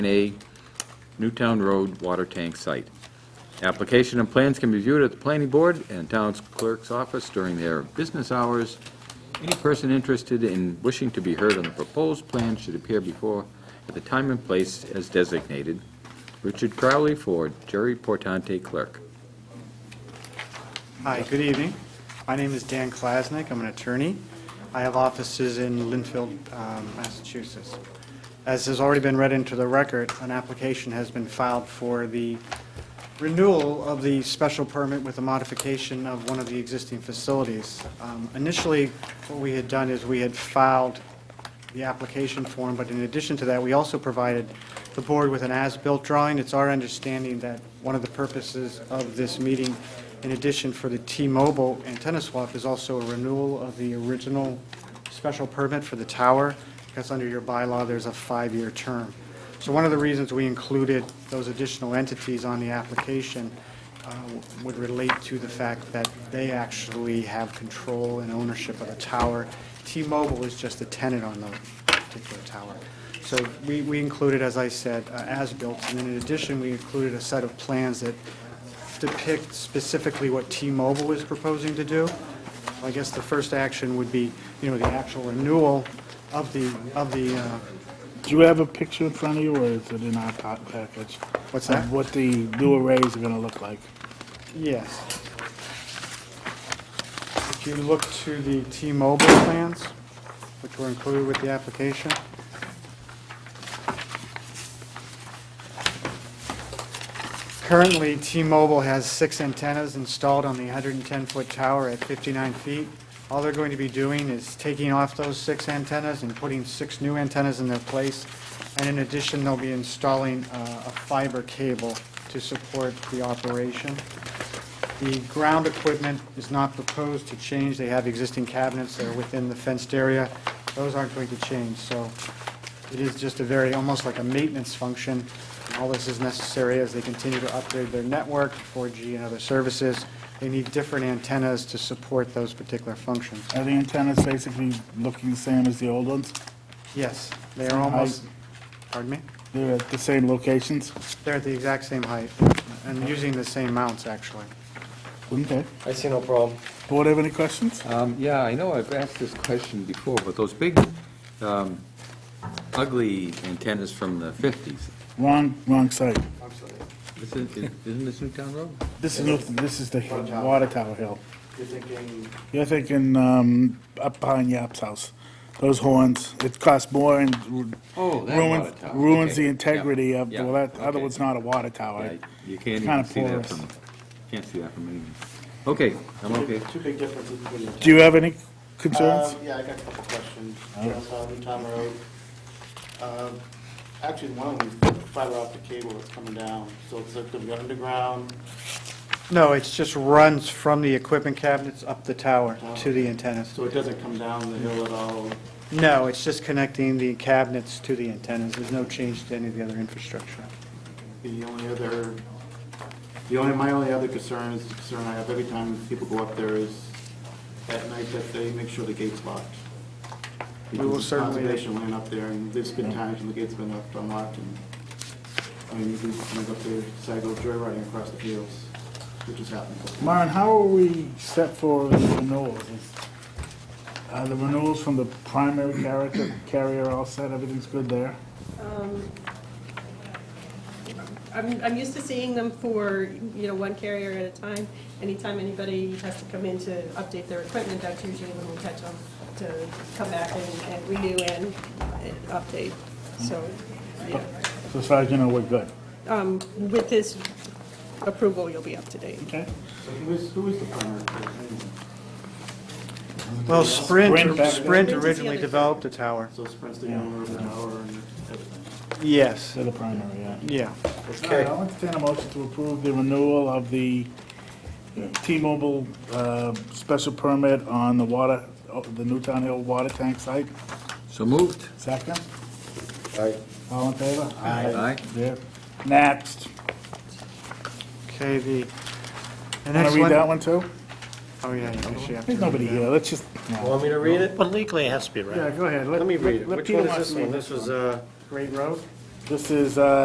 A Newtown Road Water Tank Site. Application and plans can be viewed at the planning board and town's clerk's office during their business hours. Any person interested in wishing to be heard on the proposed plan should appear before, at the time and place as designated. Richard Crowley for Jerry Portante Clerk. Hi, good evening. My name is Dan Klasnick. I'm an attorney. I have offices in Lynnfield, um, Massachusetts. As has already been read into the record, an application has been filed for the renewal of the special permit with a modification of one of the existing facilities. Um, Initially, what we had done is we had filed the application form, but in addition to that, we also provided the board with an as-built drawing. It's our understanding that one of the purposes of this meeting, in addition for the T-Mobile antenna swap, is also a renewal of the original special permit for the tower, because under your bylaw, there's a five-year term. So one of the reasons we included those additional entities on the application uh, would relate to the fact that they actually have control and ownership of the tower. T-Mobile is just a tenant on the particular tower. So we, we included, as I said, uh, as-built, and then in addition, we included a set of plans that depict specifically what T-Mobile is proposing to do. I guess the first action would be, you know, the actual renewal of the, of the, uh, Do you have a picture in front of you, or is it in our pa- package? What's that? Of what the new arrays are gonna look like? yes. If you look to the T-Mobile plans, which were included with the application, Currently, T-Mobile has six antennas installed on the 110-foot tower at 59 feet. All they're going to be doing is taking off those six antennas and putting six new antennas in their place. And in addition, they'll be installing uh, a fiber cable to support the operation. The ground equipment is not proposed to change. They have existing cabinets that are within the fenced area. Those aren't going to change, so it is just a very, almost like a maintenance function. And All this is necessary as they continue to upgrade their network, 4G and other services. They need different antennas to support those particular functions. Are the antennas basically looking the same as the old ones? Yes, they are Same height. almost, pardon me? They're at the same locations? They're at the exact same height and using the same mounts, actually. Okay. I see no problem. Board have any questions? Um, Yeah, I know I've asked this question before, but those big um, ugly antennas from the 50s, Wrong, wrong site. isn't isn't this Newtown Road? This is, Newton- this is the hill- water tower hill. You're thinking, You're thinking, um, up behind Yap's house. Those horns, it costs more and ru- Oh, that water ruins, tower. ruins Okay. the Yeah. integrity of, Yeah. well, that other Okay. one's not a water tower. Yeah, You can't Kinda even see that porous. from, can't see that from anywhere. Okay, I'm okay. two big differences between the two. Do you have any concerns? Um, Yeah, I got a couple questions. Jones Hill, Newtown Road. Um, Actually, one of them is the fiber optic cable that's coming down, so it's like going to be underground. No, it's just runs from the equipment cabinets up the tower to the antennas. So it doesn't come down the hill at all. No, it's just connecting the cabinets to the antennas. There's no change to any of the other infrastructure. The only other, the only, my only other concern is the concern I have every time people go up there is at night that they make sure the gate's locked. We will Because certainly- Conservation went up there and there's been times when the gate's been left unlocked and, I mean, you can you go up there, decide to go joyriding across the fields, which has happened. Myron, how are we set for the renewals? Is- Are the renewals from the primary character, carrier all set, everything's good there? I'm, I'm used to seeing them for, you know, one carrier at a time. Anytime anybody has to come in to update their equipment, that's usually when we catch them to come back and, and renew and and update. So, yeah, So as far as you know, we're good, um, with this approval, you'll be up to date. okay? So who is, who is the primary? Well, Sprint, Sprint back- Sprint Sprint is the originally other- developed the tower. So Sprint's the owner of the tower and everything. Yes, So the primary, yeah. yeah. All right, I'll entertain a motion to approve the renewal of the T-Mobile uh, special permit on the water, oh, the Newtown Hill water tank site. So moved. Second, Right. all in favor? Aye. Yeah. Next. Okay, the, the Want next to read that one. one too? Oh, yeah, you actually have to. There's nobody here, let's just, no. Want me to read it? Well, legally, it has to be yeah, right. go ahead. Let me read it. let Which Peter one is wants this to read one? This was, uh, Great Road? This is, uh,